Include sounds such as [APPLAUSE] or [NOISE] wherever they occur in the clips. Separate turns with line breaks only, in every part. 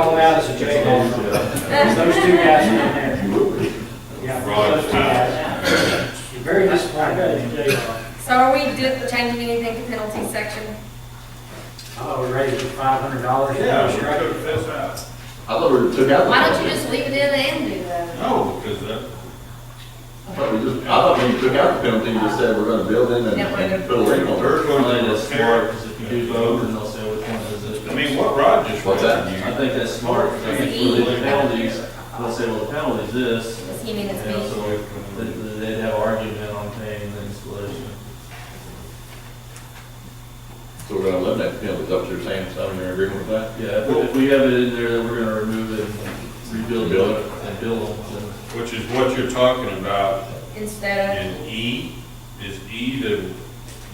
guys that you
[LAUGHS]
had, those two guys that you had. Yeah, those two guys. You're very disappointed in JR.
So are we di- changing anything to penalty section?
Oh, we raised it five hundred dollars.
Yeah, we could have filled out.
I thought we took out. the-
Why don't you just leave it in and do that?
No, because that,
I thought we just, I thought when you took out the penalty, you just said we're gonna build in and,
Yeah, we're
and put a link on
We're
it.
going
I think
to
that's smart,
repair.
because if you do both, then they'll say which one is it.
I mean, what Rod just.
What's
read,
that?
I think that's smart, because if you do the penalties, they'll say, well, the penalty's this,
Just you mean it's
you know,
me?
so th- th- they'd have argument on paying the installation.
So we're gonna eliminate the penalty, is that what you're saying, Simon, you're agreeing with that?
Yeah, if- if we have it in there that we're gonna remove it and rebuild it and build them, then
Which is what you're talking about
Instead
in E, is E the,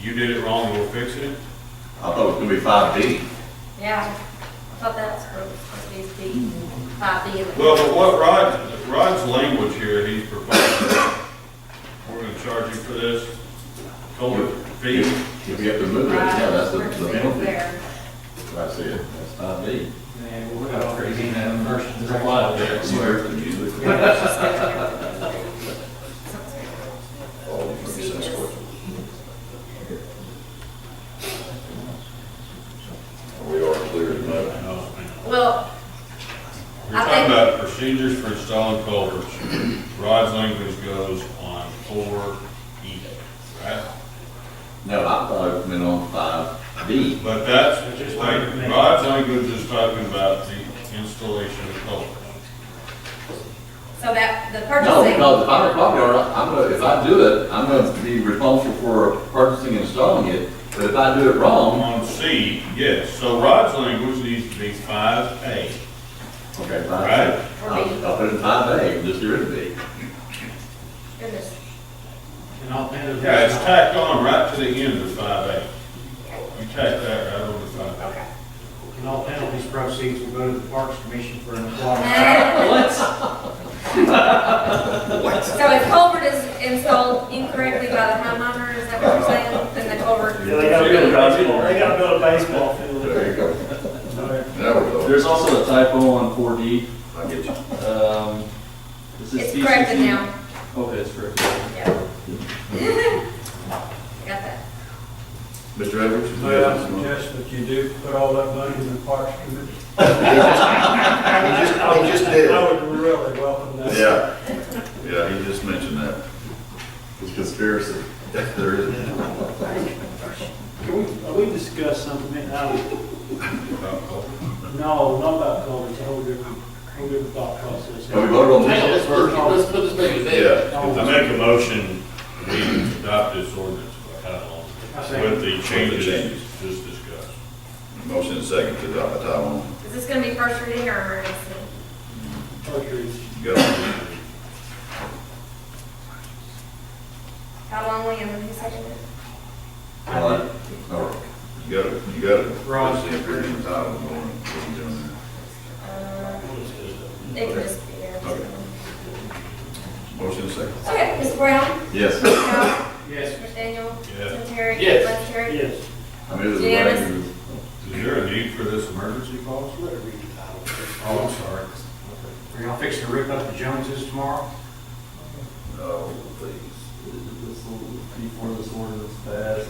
you did it wrong, we're fixing it?
I thought it was gonna be five D.
of, yeah, I thought that's where it's supposed to be, five B.
Well, but what Rod, Rod's language here, he's proposing, we're gonna charge you for this, culvert fee.
If you have to move it, yeah, that's the, the penalty. That's it, that's five D.
Man, we're all crazy now, first.
there's a lot of there.
We are clear as mud.
Well,
You're talking about procedures for installing culverts. Rod's language goes on four E, right?
No, I thought it meant on five D.
But that's, just like, Rod's language is talking about the installation of culverts.
so that, the
No,
purchasing.
because if I'm a property owner, I'm gonna, if I do it, I'm gonna be responsible for purchasing and installing it, but if I do it wrong,
On C, yes, so Rod's language needs to be five A.
okay,
Right.
five D. I'll, I'll put it in five A, just get rid of B.
Goodness.
And I'll pay the.
Yeah, it's tacked on right to the end of five A. You tack that right on to five A.
And all penalties proceeds will go to the Parks Commission for an applause.
What? So if culvert is installed incorrectly by the homeowner, is that what you're saying? Then the culvert,
They gotta build a, they gotta build a baseball field.
There you go. There we go.
There's also a typo on four D.
I get you.
Um, this is
it's corrected
TCC.
now.
Okay, it's corrected.
Yeah. [LAUGHS] Got that.
Mr. Edwards?
May I suggest that you do put all that money in the Parks
[LAUGHS]
Committee?
He just did.
I would really welcome that.
Yeah, yeah, he just mentioned that. It's conspiracy. There is.
Can we, we discussed something, I was, no, not about COVID, it's a whole different, whole different thought process.
But we voted on
Hang on,
this
let's,
first.
let's put this thing to bed.
Yeah.
I make a motion, we adopt this ordinance by title
I
only,
say,
with the changes just discussed.
Motion and second to adopt the title only.
Is this gonna be first reading or emergency?
Go.
How long will you, who seconded it?
All right. All right. You got it, you got it.
Right.
Just the appearance of the title only. What you doing
Uh, It can just be there.
Okay. there? Motion and second.
Okay, Ms. Brown?
Yes.
Powell?
yes,
Mr. Daniel?
Yes.
Mr. Terry?
Yes.
Vice Terry?
Yes.
I mean, it was.
Janice?
Is there a need for this emergency clause? Oh, I'm sorry.
are y'all fixing to rip up the Joneses tomorrow?
No, please.
This will- Before this ordinance passed,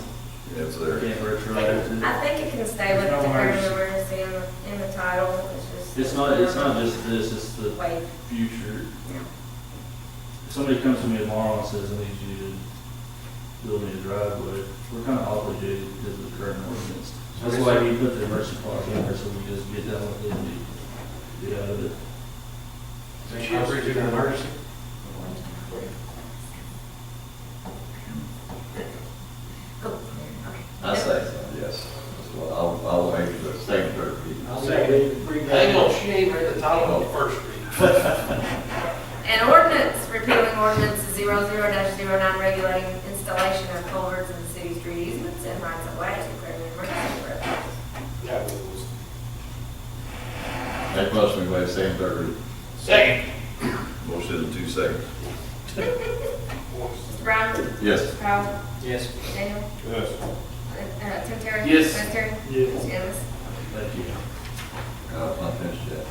It's
I
there.
can't retroact it.
I think it can stay with
No
declaring
worries.
emergency in the, in the title, it's just.
It's not, it's not just this, it's the
Wait,
future. If somebody comes to me tomorrow and says, I need you to build me a driveway, we're kind of obligated because of the current ordinance. That's why we put the emergency clause in there, so we just get done with it and we get out of it.
Is that y'all's original emergency?
cool.
I say so, yes. Well, I'll, I'll make the second, third reading.
I'll say,
Hang on, she ain't read the title on the first reading.
An ordinance repealing ordinance 00-09 regulating installation of culverts in the city's street easements and rights of way, declaring an emergency for it.
Make motion, we waive second, third reading.
Second.
Motion in two seconds.
Mr. Brown?
Yes.
Powell?
yes.
Daniel?
Yes.
Uh, Tim Terry?
Yes.
Vice Terry?
Yes.
Janice?
Thank you.
Uh, I'm not finished yet.